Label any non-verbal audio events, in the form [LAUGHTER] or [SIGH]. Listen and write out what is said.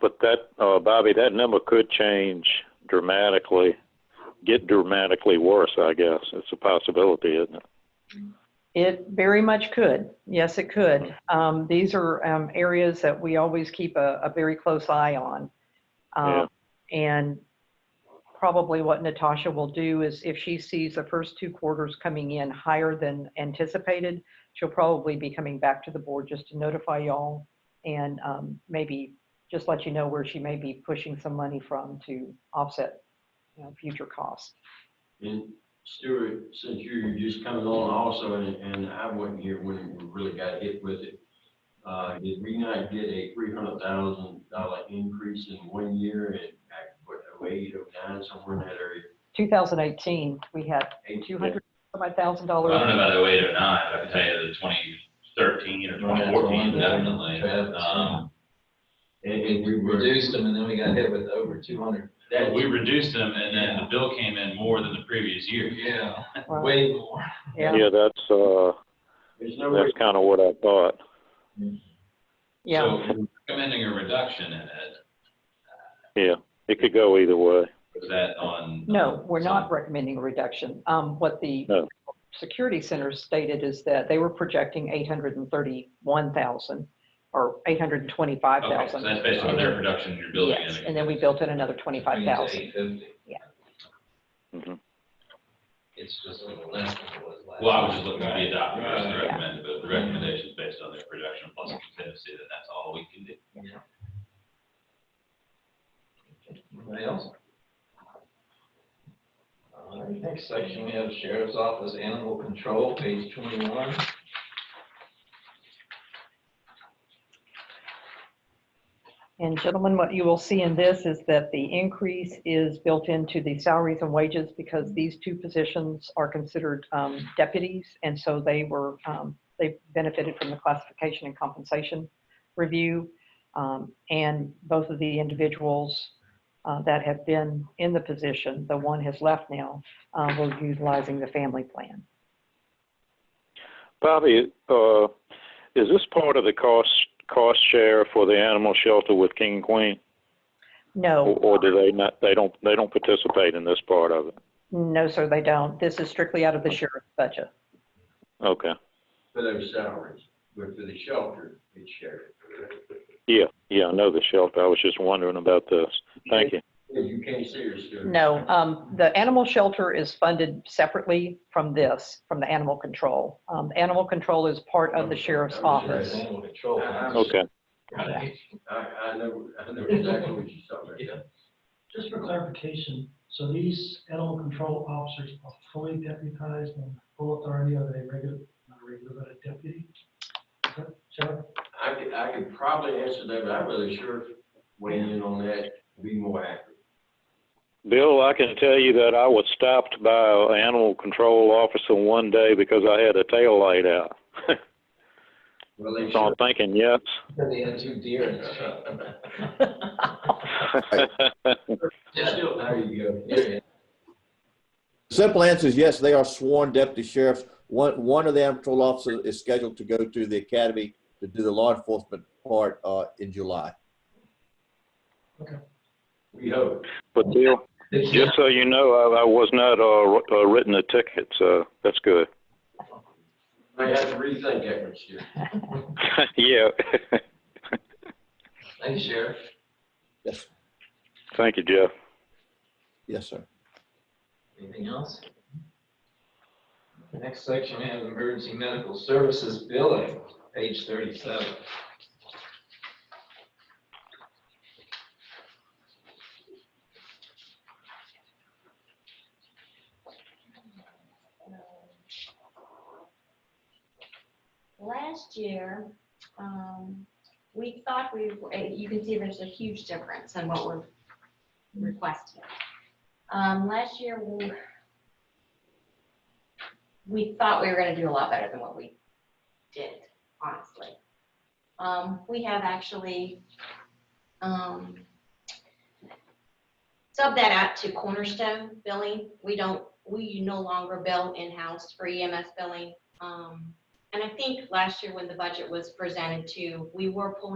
But that, uh, Bobby, that number could change dramatically, get dramatically worse, I guess. It's a possibility, isn't it? It very much could. Yes, it could. Um, These are um, areas that we always keep a, a very close eye on. Um, And probably what Natasha will do is if she sees the first two quarters coming in higher than anticipated, she'll probably be coming back to the board just to notify y'all and um, maybe just let you know where she may be pushing some money from to offset, you know, future costs. And Stuart, since you're just coming on also, and, and I wasn't here when we really got hit with it, uh, did we not get a three hundred thousand dollar increase in one year and back, what, oh eight, oh nine, somewhere in that area? 2018, we had Eight- I don't know $200,000. about 08 or 09, but I can tell you the 2013 or 2014, definitely. Um, We And, and we were, reduced them and then we got hit with over two hundred. that, We reduced them and then the bill came in more than the previous year. Yeah, Right. way more. Yeah. Yeah, that's, uh, there's no way, that's kind of what I thought. Yeah. So if we're recommending a reduction in it, It could go either way. was that on? No, we're some- not recommending a reduction. Um, What the No. security center stated is that they were projecting 831,000 or Okay, so 825,000. that's based on their production you're building Yes, in. and then we built in another 25,000. Eight fifty. Yeah. Mhm. It's just a little less than it was last. Well, I was just looking to be adopted as the Right. recommended, but the recommendation is based on their production plus a contingency that that's all we can do. Anybody else? All right, next section, we have Sheriff's Office Animal Control, page twenty-one. And gentlemen, what you will see in this is that the increase is built into the salaries and wages because these two positions are considered um, deputies. And so they were, um, they benefited from the classification and compensation review. Um, And both of the individuals uh, that have been in the position, the one has left now, uh, were utilizing the family plan. Bobby, uh, is this part of the cost, cost share for the animal shelter with King and Queen? Or, No, or do they not, they don't, they don't participate in this part of it? no, sir, they don't. This is strictly out of the sheriff's budget. Okay. for those salaries, but for the shelter, it's shared. Yeah, yeah, I know the shelter. I was just wondering about this. Thank you. You can't see her, Stuart. No, um, the animal shelter is funded separately from this, from the animal control. Um, animal control is part Oh, of the sheriff's office. Animal Control. Okay. Right. I, I know, I know exactly what you're talking about. Just for clarification, so these animal control officers are fully deputized and full authority of a regular, not a regular, but a deputy? Is that- Sheriff? I could, I could probably answer that, but I'm really sure weighing in on that would be more accurate. Bill, I can tell you that I was stopped by an animal control officer one day because I had a tail light out. Well, they So I'm should. thinking, yes. [LAUGHS] Because they had two deer [LAUGHS] in the truck. Just still, there you go. Yeah. Simple answer is yes, they are sworn deputy sheriffs. One, one of the animal control officers is scheduled to go to the academy to do the law enforcement part uh, in July. We hope. But Bill, just so you know, I, I was not uh, uh, written a ticket, so that's good. [LAUGHS] Might have to rethink that one, Stuart. yeah. Thank you, Sheriff. Yes, Thank you, Jeff. yes, sir. Anything else? The next section, we have emergency medical services billing, page thirty-seven. Um, Last year, um, we thought we, were- eh, you can see there's a huge difference in what we're requesting. Um, last year, we, we thought we were gonna do a lot better than what we did, honestly. Um, we have actually, um, sub that out to Cornerstone billing. We don't, we no longer bill in-house for E EMS billing. Um, and I think last year when the budget was presented to, we were pulling